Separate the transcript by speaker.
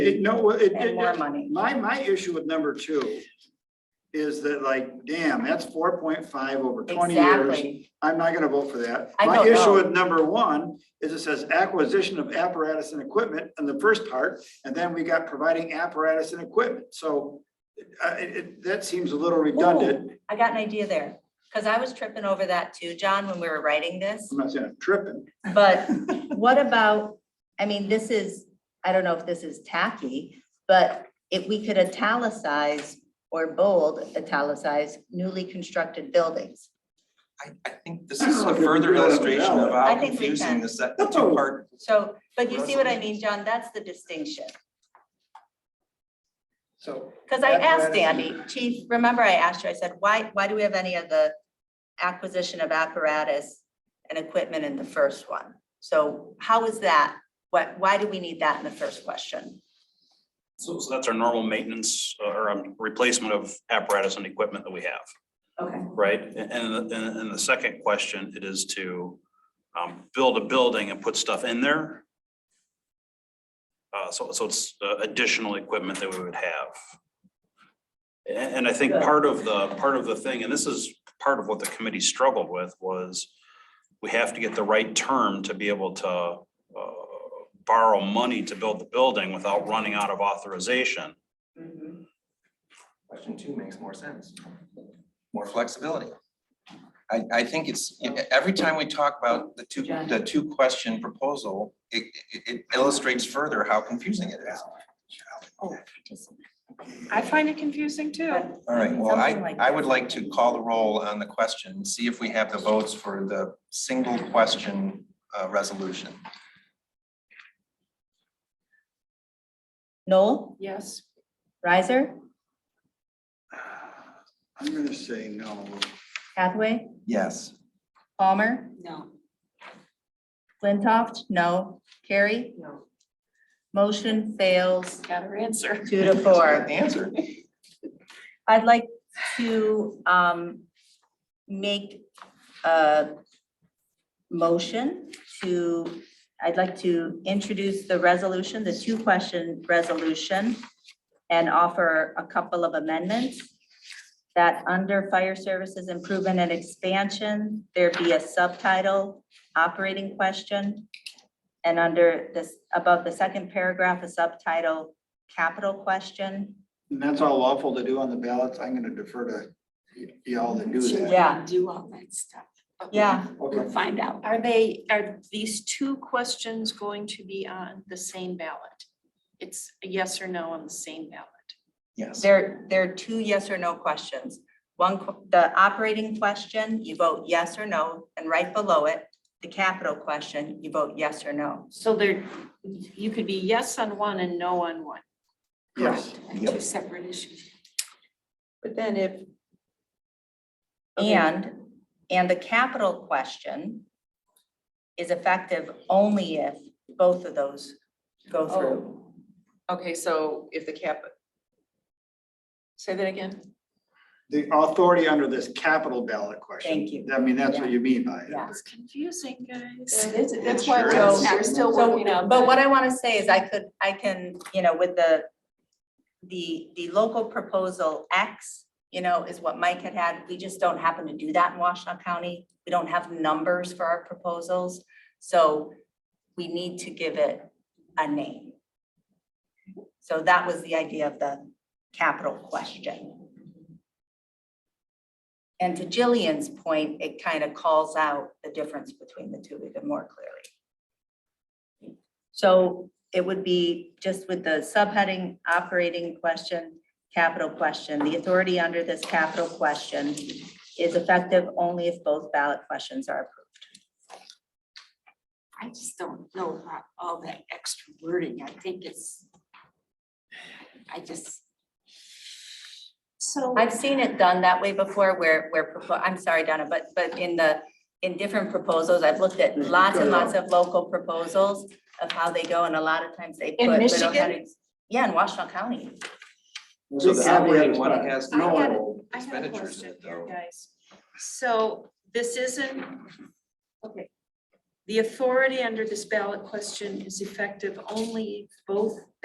Speaker 1: It, no, well, it,
Speaker 2: and
Speaker 1: it,
Speaker 2: more money.
Speaker 1: my, my issue with number two is that like, damn, that's four point five over twenty years.
Speaker 2: Exactly.
Speaker 1: I'm not gonna vote for that.
Speaker 2: I
Speaker 1: My
Speaker 2: don't
Speaker 1: issue
Speaker 2: know.
Speaker 1: with number one is it says acquisition of apparatus and equipment in the first part, and then we got providing apparatus and equipment, so uh, it, it, that seems a little redundant.
Speaker 2: I got an idea there, because I was tripping over that too, John, when we were writing this.
Speaker 1: I'm not saying I'm tripping.
Speaker 2: But what about, I mean, this is, I don't know if this is tacky, but if we could italicize or bold italicize newly constructed buildings.
Speaker 3: I, I think this
Speaker 1: I don't
Speaker 3: is
Speaker 1: know
Speaker 3: a
Speaker 1: if we
Speaker 3: further
Speaker 1: can do that
Speaker 3: illustration of
Speaker 1: without
Speaker 2: it.
Speaker 3: how
Speaker 2: I think we
Speaker 3: confusing
Speaker 2: can.
Speaker 3: this, that the two part.
Speaker 2: So, but you see what I mean, John? That's the distinction.
Speaker 1: So,
Speaker 2: Because I
Speaker 1: That's what I
Speaker 2: asked
Speaker 1: was-
Speaker 2: Andy, chief, remember I asked you, I said, why, why do we have any of the acquisition of apparatus and equipment in the first one? So how is that? What, why do we need that in the first question?
Speaker 4: So, so that's our normal maintenance uh, or um, replacement of apparatus and equipment that we have,
Speaker 2: Okay.
Speaker 4: right? And, and, the- and the second question, it is to, um, build a building and put stuff in there. Uh, so, so it's uh, additional equipment that we would have. And, and I think part of the, part of the thing, and this is part of what the committee struggled with, was we have to get the right term to be able to, uh, borrow money to build the building without running out of authorization.
Speaker 3: Question two makes more sense. More flexibility. I, I think it's, every time we talk about the two, the two question proposal, it, it- it illustrates further how confusing it is.
Speaker 5: I find it confusing too.
Speaker 3: All right, well,
Speaker 2: Something
Speaker 3: I,
Speaker 2: like
Speaker 3: I would like to call the roll on the question, see if we have the votes for the single question uh, resolution.
Speaker 2: Noel,
Speaker 5: Yes.
Speaker 2: Riser,
Speaker 1: I'm gonna say no.
Speaker 2: Hathaway,
Speaker 3: Yes.
Speaker 2: Palmer,
Speaker 5: No.
Speaker 2: Flintoff, no, Carrie?
Speaker 5: No.
Speaker 2: Motion fails
Speaker 5: Got her answer.
Speaker 2: two to four.
Speaker 3: Answer.
Speaker 2: I'd like to um make a motion to, I'd like to introduce the resolution, the two-question resolution, and offer a couple of amendments that under fire services improvement and expansion, there be a subtitle, operating question, and under this, above the second paragraph, a subtitle, capital question.
Speaker 1: And that's all lawful to do on the ballots, I'm gonna defer to y- y'all to do that.
Speaker 2: Yeah.
Speaker 6: Do all that stuff. but we'll-
Speaker 2: Yeah.
Speaker 1: Okay.
Speaker 6: We'll find out.
Speaker 5: Are they, are these two questions going to be on the same ballot? It's a yes or no on the same ballot.
Speaker 3: Yes.
Speaker 2: There, there are two yes or no questions. One, qu- the operating question, you vote yes or no, and right below it, the capital question, you vote yes or no.
Speaker 5: So there, you could be yes on one and no on one.
Speaker 1: Yes,
Speaker 6: And Two separate issues.
Speaker 5: But then if. Okay.
Speaker 2: And, and the capital question is effective only if both of those go through.
Speaker 5: Okay, so if the cap. Say that again.
Speaker 1: the authority under this capital ballot question.
Speaker 2: Thank you.
Speaker 1: I mean, that's what you mean by it.
Speaker 2: Yeah.
Speaker 5: It's confusing, guys.
Speaker 6: That's that's
Speaker 3: sure
Speaker 6: why we're
Speaker 2: is.
Speaker 6: we're still
Speaker 2: So,
Speaker 6: working on.
Speaker 2: But
Speaker 6: that.
Speaker 2: what I want to say is I could, I can, you know, with the, the, the local proposal X, you know, is what Mike had had. We just don't happen to do that in Washtenaw County. We don't have numbers for our proposals. So we need to give it a name. So that was the idea of the capital question. And to Jillian's point, it kind of calls out the difference between the two even more clearly. So it would be just with the subheading, operating question, capital question, the authority under this capital question is effective only if both ballot questions are approved.
Speaker 6: I just don't know about all that extra wording. I think it's. I just.
Speaker 5: So.
Speaker 2: I've seen it done that way before where, where, propo- I'm sorry, Donna, but, but in the, in different proposals, I've looked at lots and lots of local proposals of how they go and a lot of times they put.
Speaker 5: In
Speaker 2: little
Speaker 5: Michigan?
Speaker 2: headings. Yeah, in Washington County.
Speaker 3: So the
Speaker 1: Yeah, we
Speaker 3: operating
Speaker 1: had
Speaker 3: one
Speaker 1: spot.
Speaker 3: has
Speaker 5: I had-
Speaker 3: no
Speaker 5: I have a
Speaker 3: expenditures in
Speaker 5: question
Speaker 3: it
Speaker 5: here,
Speaker 3: though.
Speaker 5: guys. So this isn't, okay. The authority under this ballot question is effective only if both